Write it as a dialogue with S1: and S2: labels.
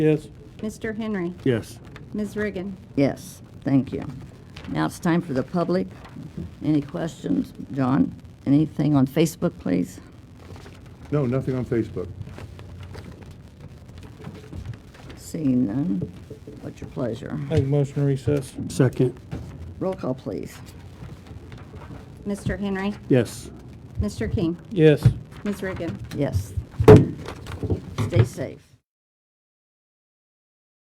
S1: Yes.
S2: Mr. Henry.
S1: Yes.
S2: Ms. Riggin.
S3: Yes, thank you. Now it's time for the public.
S4: Mm-hmm.
S3: Any questions? John, anything on Facebook, please?
S4: No, nothing on Facebook.
S3: Seeing none. What's your pleasure?
S1: Make a motion to recess. Second.
S3: Roll call, please.
S2: Mr. Henry.
S1: Yes.
S2: Mr. King.
S1: Yes.
S2: Ms. Riggin.
S3: Yes. Stay safe.